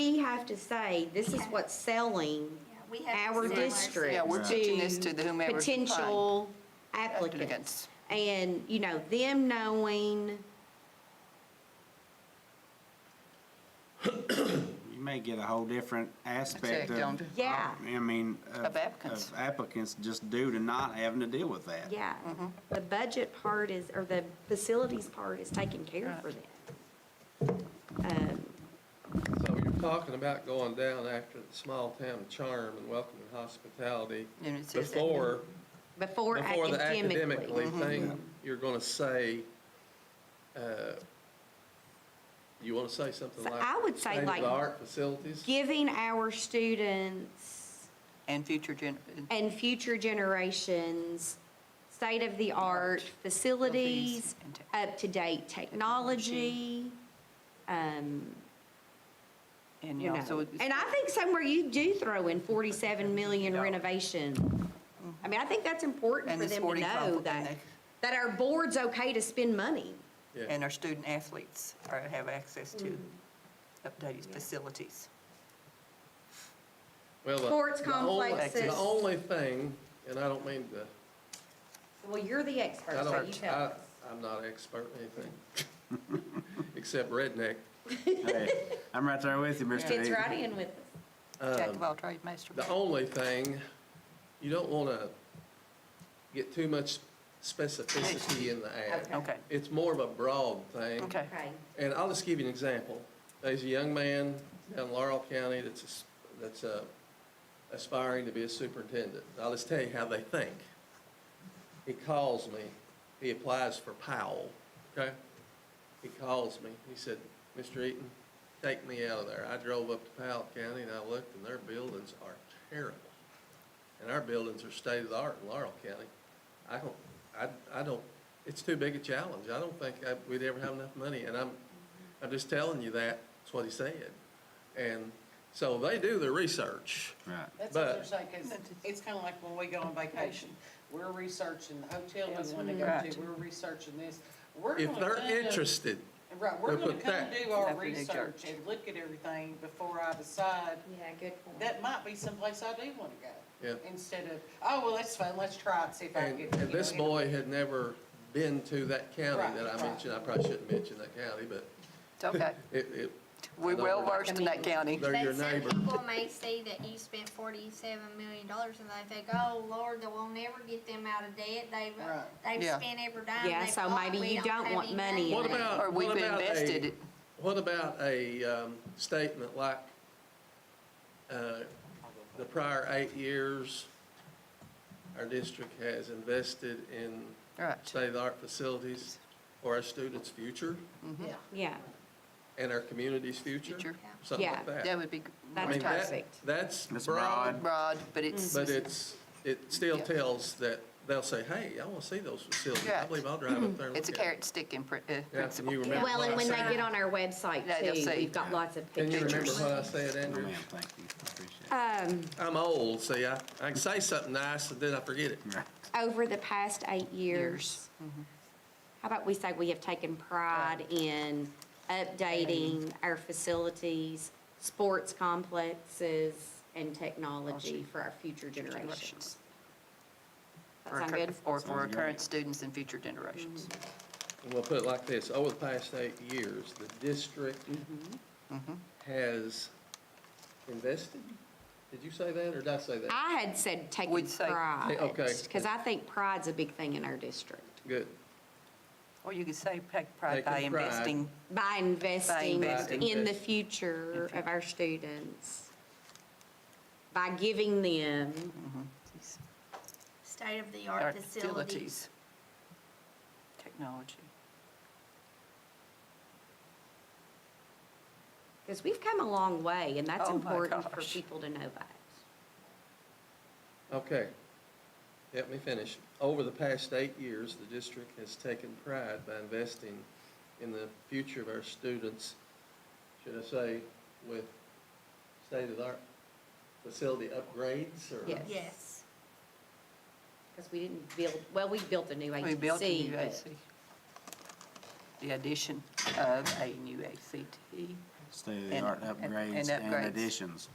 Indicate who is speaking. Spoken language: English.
Speaker 1: have to say, this is
Speaker 2: Yeah.
Speaker 1: what's selling
Speaker 2: Yeah, we have
Speaker 1: our
Speaker 2: to sell
Speaker 1: district.
Speaker 3: Yeah, we're pitching this to the whomever we find.
Speaker 1: Potential
Speaker 3: Applicants.
Speaker 1: applicants. And, you know, them knowing,
Speaker 4: You may get a whole different aspect
Speaker 3: Exact,
Speaker 4: of.
Speaker 3: don't you?
Speaker 1: Yeah.
Speaker 4: I mean.
Speaker 3: Of applicants.
Speaker 4: Of applicants just due to not having to deal with that.
Speaker 1: yeah,
Speaker 3: Mm-hmm.
Speaker 1: the budget part is, or the facilities part is taken care of for them. Um,
Speaker 5: So you're talking about going down after the small town charm and welcome and hospitality
Speaker 3: And it says that.
Speaker 5: before,
Speaker 1: Before
Speaker 5: before the
Speaker 1: academically. Mm-hmm.
Speaker 5: academically Mm-hmm. thing, you're gonna say, uh, you wanna say something
Speaker 1: So
Speaker 5: like.
Speaker 1: I would say like-
Speaker 5: State-of-the-art facilities?
Speaker 1: Giving our students
Speaker 3: And future gen,
Speaker 1: and future generations state-of-the-art facilities,
Speaker 3: and tech-
Speaker 1: up-to-date technology. um,
Speaker 3: and
Speaker 1: you know.
Speaker 3: also.
Speaker 1: And I think somewhere you do throw in 47 million
Speaker 5: Yeah.
Speaker 1: renovation. I mean, I think that's important
Speaker 3: And
Speaker 1: for
Speaker 3: it's
Speaker 1: them to
Speaker 3: 45
Speaker 1: know
Speaker 3: and
Speaker 1: that,
Speaker 3: they-
Speaker 1: that our board's okay to spend money.
Speaker 5: Yeah,
Speaker 3: And our student athletes are, have access to updated facilities.
Speaker 5: well, the-
Speaker 1: sports
Speaker 5: the only-
Speaker 1: complexes.
Speaker 5: The only thing, and I don't mean to
Speaker 1: Well, you're the expert,
Speaker 5: I
Speaker 1: so
Speaker 5: don't,
Speaker 1: you tell
Speaker 5: I-
Speaker 1: us.
Speaker 5: I'm not an expert in anything, except redneck.
Speaker 4: Hey, I'm right there with you, Mr.
Speaker 1: Fits
Speaker 4: Eaton.
Speaker 1: right in with us.
Speaker 3: Jack of all trades, master. of
Speaker 5: Um, The
Speaker 3: none.
Speaker 5: only thing, you don't want to get too much specificity in the ad.
Speaker 3: Okay,
Speaker 5: It's more of a broad thing.
Speaker 3: okay.
Speaker 1: Okay,
Speaker 5: And I'll just give you an example. There's a young man down in Laurel County that's, as- that's uh, aspiring to be a superintendent. I'll just tell you how they think. He calls me, he applies for Powell, okay? He calls me, he said, Mr. Eaton, take me out of there. I drove up to Powell County and I looked and their buildings are terrible. And our buildings are state of the art in Laurel County. I don't, I, I don't, it's too big a challenge. I don't think I- we'd ever have enough money. And I'm, I'm just telling you that, that's what he said. And so they do their research.
Speaker 4: Right.
Speaker 6: That's what they're
Speaker 5: But-
Speaker 6: saying, 'cause it's kind of like when we go on vacation, we're researching the hotel we want to go
Speaker 3: Right.
Speaker 6: to, we're researching this. We're
Speaker 5: If
Speaker 6: gonna
Speaker 5: they're
Speaker 6: kinda-
Speaker 5: interested,
Speaker 6: Right, we're
Speaker 5: they'll
Speaker 6: going
Speaker 5: put
Speaker 6: to come
Speaker 5: that-
Speaker 6: do our
Speaker 3: That's what they
Speaker 6: research
Speaker 3: judge.
Speaker 6: and look at everything before I decide,
Speaker 1: yeah, good point.
Speaker 6: that might be someplace I do want to go.
Speaker 5: Yeah.
Speaker 6: Instead of, oh, well, that's fun, let's try it, see if I can
Speaker 5: and,
Speaker 6: get.
Speaker 5: and
Speaker 6: you know,
Speaker 5: this
Speaker 6: in."
Speaker 5: boy had never been to that county
Speaker 6: Right,
Speaker 5: that I
Speaker 6: right.
Speaker 5: mentioned, I probably shouldn't mention that county, but
Speaker 3: It's okay.
Speaker 5: it, it,
Speaker 3: We're well versed in that county.
Speaker 5: they're your
Speaker 7: But some
Speaker 5: neighbor.
Speaker 7: people may see that you spent forty-seven million dollars and they think, oh, Lord, they will never get them out of debt. They've,
Speaker 6: Right.
Speaker 7: they've
Speaker 3: Yeah.
Speaker 7: spent every dime.
Speaker 1: Yeah,
Speaker 7: they've
Speaker 1: so
Speaker 7: bought.
Speaker 1: maybe
Speaker 7: We
Speaker 1: you don't
Speaker 7: have
Speaker 1: want
Speaker 7: any
Speaker 1: money in
Speaker 5: What
Speaker 1: that.
Speaker 5: about-
Speaker 3: Or we've
Speaker 5: what about a-
Speaker 3: invested it.
Speaker 5: What about a, um, statement like, uh, the prior eight years, our district has invested in
Speaker 3: Right.
Speaker 5: state-of-the-art facilities for our students' future
Speaker 6: Yeah.
Speaker 1: Yeah,
Speaker 5: and our community's future?
Speaker 3: Future.
Speaker 5: Something like
Speaker 1: Yeah.
Speaker 5: that.
Speaker 3: That would be
Speaker 5: I
Speaker 1: That's
Speaker 5: mean,
Speaker 3: more
Speaker 5: that-
Speaker 1: perfect.
Speaker 5: That's
Speaker 4: That's
Speaker 5: broad,
Speaker 4: broad.
Speaker 3: broad, but it's,
Speaker 5: But it's, it still
Speaker 3: Yeah.
Speaker 5: tells that, they'll say, hey, I want to see those facilities. I
Speaker 3: Right.
Speaker 5: believe I'll drive up there and look
Speaker 3: it's a
Speaker 5: at it."
Speaker 3: carrot stick in pr- uh,
Speaker 5: Yeah, can you
Speaker 3: principle.
Speaker 5: remember
Speaker 1: well,
Speaker 5: what
Speaker 1: and
Speaker 5: I
Speaker 1: when they
Speaker 5: said?
Speaker 1: get on our website
Speaker 3: Yeah, they'll
Speaker 1: too,
Speaker 3: see.
Speaker 1: we've got lots of
Speaker 5: Can you remember
Speaker 1: pictures.
Speaker 5: what I said,
Speaker 4: Oh,
Speaker 5: Andrew?
Speaker 4: Ma'am, thank you. I Appreciate it.
Speaker 1: Um,
Speaker 5: I'm old, see, I, I can say something nice, and then I forget it.
Speaker 4: Right.
Speaker 1: over the past eight years,
Speaker 3: Mm-hmm.
Speaker 1: how about we say we have taken pride in updating our facilities, sports complexes, and technology for our future generations.
Speaker 3: Generations.
Speaker 1: That
Speaker 3: Or
Speaker 1: sound
Speaker 3: cur-
Speaker 1: good?
Speaker 3: Or for our
Speaker 4: Sounds
Speaker 3: current
Speaker 4: great.
Speaker 3: students and future generations.
Speaker 5: And we'll put it like this, over the past eight years, the district has invested? Did you say that, or did I say that?
Speaker 1: I had said taken
Speaker 3: We'd say-
Speaker 1: pride,
Speaker 5: Okay.
Speaker 1: because I think pride's a big thing in our district.
Speaker 5: Good.
Speaker 3: Or you could say take pride by
Speaker 5: Taking pride.
Speaker 3: investing.
Speaker 1: By investing
Speaker 3: investing.
Speaker 1: in the future of our students, by giving them
Speaker 3: our
Speaker 7: State-of-the-art facilities.
Speaker 3: facilities. Technology.
Speaker 1: Because we've come a long way, and that's
Speaker 3: Oh my
Speaker 1: important for
Speaker 3: gosh.
Speaker 1: people to know that.
Speaker 5: Okay. Let me finish. Over the past eight years, the district has taken pride by investing in the future of our students, should I say, with state-of-the-art facility upgrades or?
Speaker 1: Yes.
Speaker 7: Yes.
Speaker 1: Because we didn't build, well, we built a new
Speaker 3: We built a
Speaker 1: ATC,
Speaker 3: new
Speaker 1: but
Speaker 3: AC. The addition of a new ACT
Speaker 4: state-of-the-art
Speaker 3: And- and- and
Speaker 4: upgrades and
Speaker 3: upgrades.
Speaker 4: additions.